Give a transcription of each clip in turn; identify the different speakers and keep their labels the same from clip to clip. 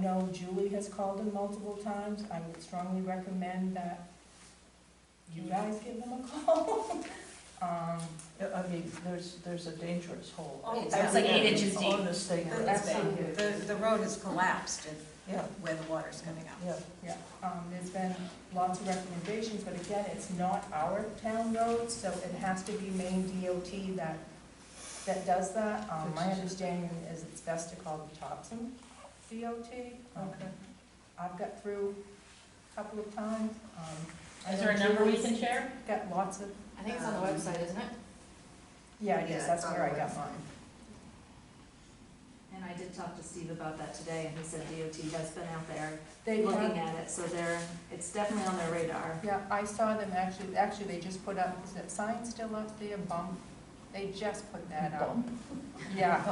Speaker 1: know Julie has called him multiple times. I would strongly recommend that you guys give him a call. Um,
Speaker 2: I mean, there's, there's a dangerous hole.
Speaker 3: Oh,
Speaker 1: It's
Speaker 3: like eight
Speaker 4: inches deep.
Speaker 2: On this thing.
Speaker 1: That's big.
Speaker 3: The, the road is collapsed and
Speaker 2: Yeah,
Speaker 3: where the water's coming out.
Speaker 2: yeah.
Speaker 1: Yeah, um, there's been lots of recommendations, but again, it's not our town road, so it has to be main DOT that, that does that. Um, my understanding is it's best to call the Thompson DOT. Um,
Speaker 2: Okay.
Speaker 1: I've got through a couple of times, um.
Speaker 4: Is there a number we can share?
Speaker 1: Got lots of,
Speaker 4: I think it's on the
Speaker 3: Um,
Speaker 4: website, isn't it?
Speaker 1: yeah, I guess
Speaker 3: Yeah,
Speaker 1: that's where I got
Speaker 3: probably.
Speaker 1: mine.
Speaker 5: And I did talk to Steve about that today, and he said DOT has been out there
Speaker 1: They
Speaker 5: looking
Speaker 1: have,
Speaker 5: at it, so they're, it's definitely on their radar.
Speaker 1: yeah, I saw them actually, actually, they just put up, is that sign still up there, bump? They just put that up. Yeah.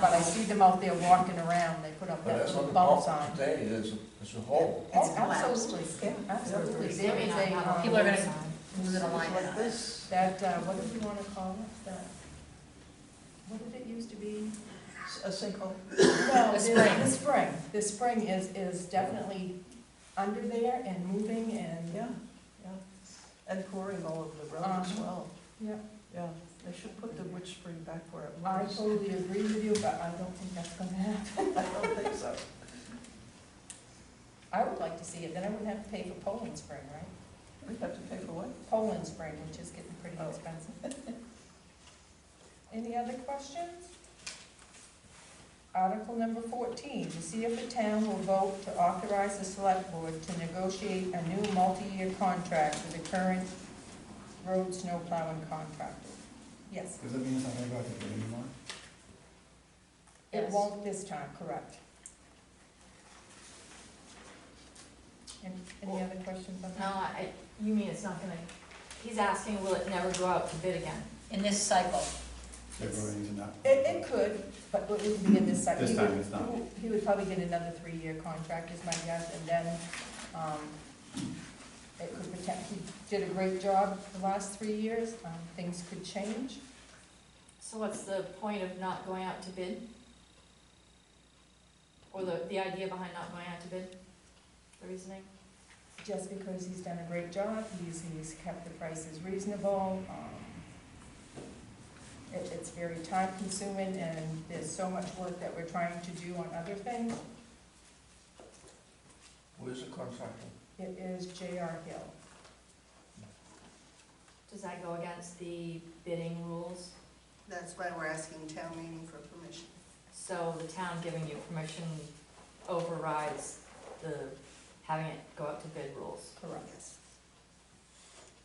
Speaker 1: But I see them out there walking around, they put up
Speaker 6: But
Speaker 1: that
Speaker 6: that's
Speaker 1: little
Speaker 6: what the
Speaker 1: bump
Speaker 6: problem
Speaker 1: sign.
Speaker 6: today is, is a hole.
Speaker 3: It's
Speaker 1: Oh,
Speaker 3: collapsed.
Speaker 1: absolutely, yeah, absolutely.
Speaker 2: Yeah.
Speaker 1: There is a, um,
Speaker 4: People are gonna lose it online.
Speaker 2: Like this.
Speaker 1: that, uh, what do we wanna call it, that, what did it used to be?
Speaker 2: A sinkhole.
Speaker 1: No, the-
Speaker 4: A spring.
Speaker 1: The spring, the spring is, is definitely under there and moving and,
Speaker 2: Yeah, yeah. And pouring all over the road as
Speaker 1: Uh-huh.
Speaker 2: well.
Speaker 1: Yeah.
Speaker 2: Yeah, they should put the witch spring back where it
Speaker 1: I
Speaker 2: was.
Speaker 1: totally agree with you, but I don't think that's gonna happen.
Speaker 2: I don't think so.
Speaker 1: I would like to see it, then I wouldn't have to pay for Poland Spring, right?
Speaker 2: We have to pay for what?
Speaker 1: Poland Spring, which is getting pretty
Speaker 2: Oh.
Speaker 1: expensive. Any other questions? Article number fourteen, to see if the town will vote to authorize the select board to negotiate a new multi-year contract with the current road snow plowing contractor. Yes,
Speaker 6: Does that mean it's not gonna go out to bid anymore?
Speaker 1: it
Speaker 4: Yes.
Speaker 1: won't this time, correct? Any, any other questions on
Speaker 4: No,
Speaker 1: that?
Speaker 4: I, you mean it's not gonna, he's asking, will it never go out to bid again? In this cycle.
Speaker 6: They're going into that.
Speaker 1: It, it could, but it wouldn't be in this cycle.
Speaker 6: This time it's not.
Speaker 1: He would probably get another three-year contract is my guess, and then, um, it could protect, he did a great job the last three years, um, things could change.
Speaker 4: So what's the point of not going out to bid? Or the, the idea behind not going out to bid? The reasoning?
Speaker 1: Just because he's done a great job, he's, he's kept the prices reasonable, um, it, it's very time consuming, and there's so much work that we're trying to do on other things.
Speaker 6: Where's the contractor?
Speaker 1: It is J.R. Hill.
Speaker 4: Does that go against the bidding rules?
Speaker 3: That's why we're asking town meeting for permission.
Speaker 4: So the town giving you permission overrides the, having it go out to bid rules?
Speaker 1: Correct.
Speaker 3: Yes.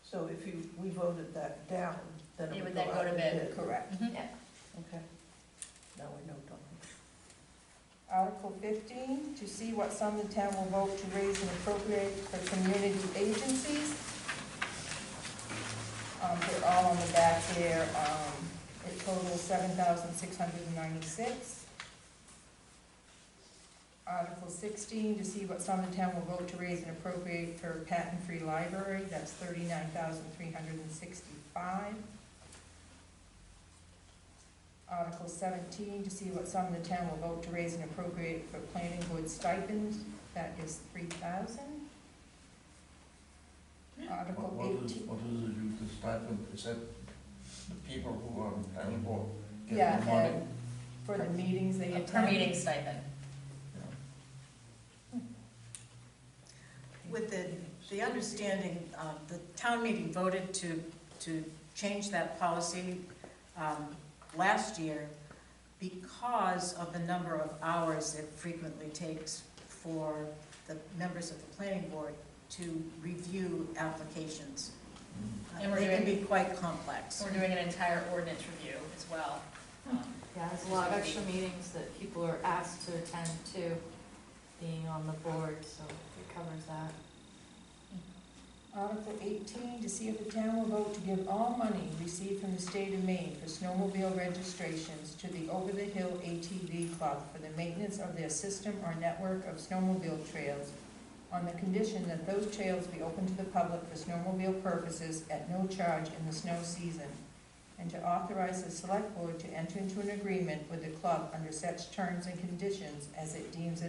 Speaker 2: So if you, we voted that down, then
Speaker 4: It
Speaker 2: it would
Speaker 4: would
Speaker 2: go
Speaker 4: then go
Speaker 2: out
Speaker 4: to
Speaker 2: to
Speaker 4: bid.
Speaker 2: bid.
Speaker 1: Correct.
Speaker 3: Mm-hmm.
Speaker 2: Okay. Now we know, don't we?
Speaker 1: Article fifteen, to see what sum the town will vote to raise and appropriate for community agencies. Um, they're all on the back here, um, it totals seven thousand six hundred and ninety-six. Article sixteen, to see what sum the town will vote to raise and appropriate for patent-free library, that's thirty-nine thousand three hundred and sixty-five. Article seventeen, to see what sum the town will vote to raise and appropriate for planning board stipends, that is three thousand.
Speaker 6: What,
Speaker 1: Article
Speaker 6: what is,
Speaker 1: eighteen,
Speaker 6: what is it, you, the stipend, is that the people who are on town board get
Speaker 1: yeah,
Speaker 6: the money?
Speaker 1: and for the meetings they attend.
Speaker 4: stipend.
Speaker 3: With the, the understanding, uh, the town meeting voted to, to change that policy um, last year because of the number of hours it frequently takes for the members of the planning board to review applications.
Speaker 6: Mm.
Speaker 3: Uh,
Speaker 7: And we're
Speaker 3: They can
Speaker 7: doing-
Speaker 3: be quite complex.
Speaker 7: We're doing an entire ordinance review as well. Um,
Speaker 4: Yeah, there's a lot of extra meetings that people are asked to attend to, being on the board, so it covers that.
Speaker 1: Article eighteen, to see if the town will vote to give all money received from the state of Maine for snowmobile registrations to the Over the Hill ATV Club for the maintenance of their system or network of snowmobile trails on the condition that those trails be open to the public for snowmobile purposes at no charge in the snow season, and to authorize the select board to enter into an agreement with the club under such terms and conditions as it deems